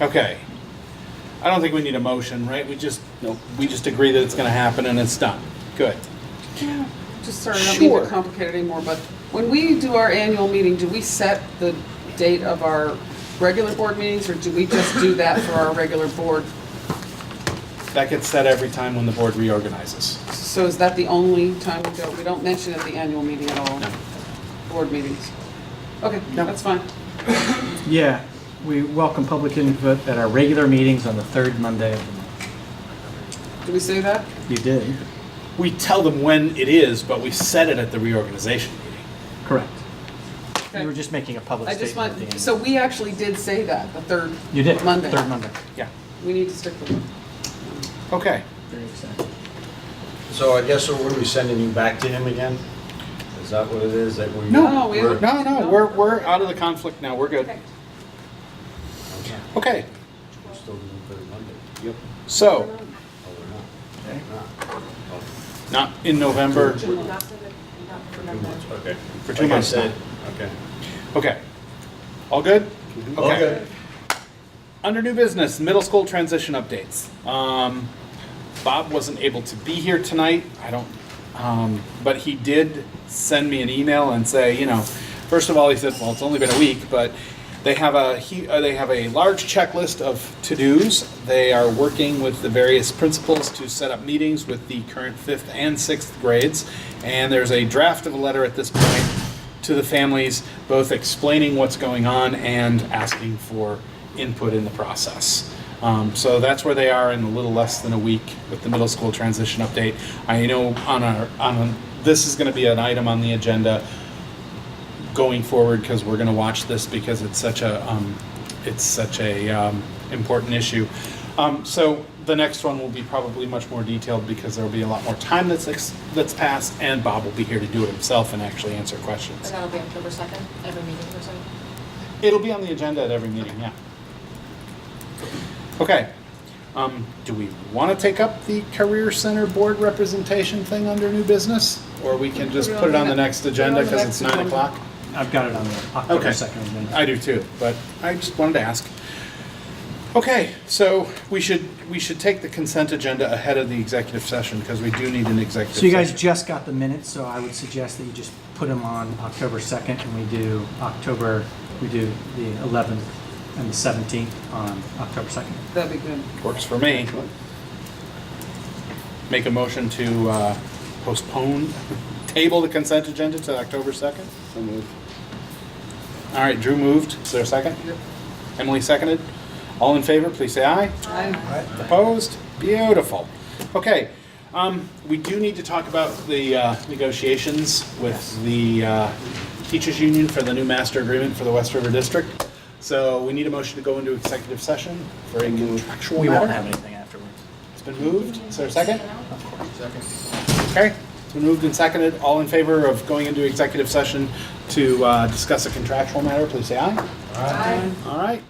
Okay. I don't think we need a motion, right? We just, Nope. we just agree that it's gonna happen and it's done. Good. Just sorry, I don't mean Sure. to complicate it anymore, but when we do our annual meeting, do we set the date of our regular board meetings, or do we just do that for our regular board? That gets said every time when the board reorganizes. So is that the only time we do it? We don't mention it at the annual meeting at all, No. board meetings? Okay, No. that's fine. Yeah, we welcome public input at our regular meetings on the third Monday of the month. Do we say that? You did? We tell them when it is, but we set it at the reorganization meeting. Correct. Okay. You were just making a public I just want, statement at the end. so we actually did say that, the third Monday. You did, third Monday. Yeah. We need to stick with it. Okay. Very exciting. So I guess what are we sending you back to him again? Is that what it is that we? No. No, we we're- haven't- No, no, we're, we're out of the conflict now. We're good. Okay. Okay. Okay, We're still doing third Monday. Yep. so, Oh, we're not. Okay. We're not. Oh, not in November. Two months, okay. For two Like I months. said, Okay. Okay. All good? Okay. Under new business, middle school transition updates. Um, Bob wasn't able to be here tonight. I don't, um, but he did send me an email and say, you know, first of all, he said, well, it's only been a week, but they have a he, uh, they have a large checklist of to-dos. They are working with the various principals to set up meetings with the current fifth and sixth grades, and there's a draft of a letter at this point to the families, both explaining what's going on and asking for input in the process. Um, so that's where they are in a little less than a week with the middle school transition update. I know on our on a, this is going to be an item on the agenda going forward because we're going to watch this because it's such a um, it's such a um, important issue. Um, so the next one will be probably much more detailed because there will be a lot more time that's ex- that's passed, and Bob will be here to do it himself and actually answer And questions. that'll be October 2nd, every meeting or something? It'll be on the agenda at every meeting. Yeah. Okay. Um, do we want to take up the career center board representation thing under new business, or we can just put it on the next agenda because it's nine o'clock? I've got it on the October 2nd agenda. I do too, but I just wanted to ask. Okay, so we should, we should take the consent agenda ahead of the executive session because we do need an executive. So you guys session. just got the minutes, so I would suggest that you just put them on October 2nd, and we do October, we do the 11th and the 17th on October 2nd. That'd be good. Works for me. Make a motion to uh, postpone, table the consent agenda to October 2nd. So moved. All right, Drew moved. Is there a second? Emily seconded. All in favor, please say aye. I- Opposed? Beautiful. Okay, um, we do need to talk about the uh, negotiations with the uh, teachers union for the new master agreement for the West River District. So we need a motion to go into executive session for a contractual We won't have matter. anything afterwards. It's been moved. Is there a second? Okay, it's been moved and seconded. All in favor of going into executive session to uh, discuss a contractual matter, please say aye. Aye. All right.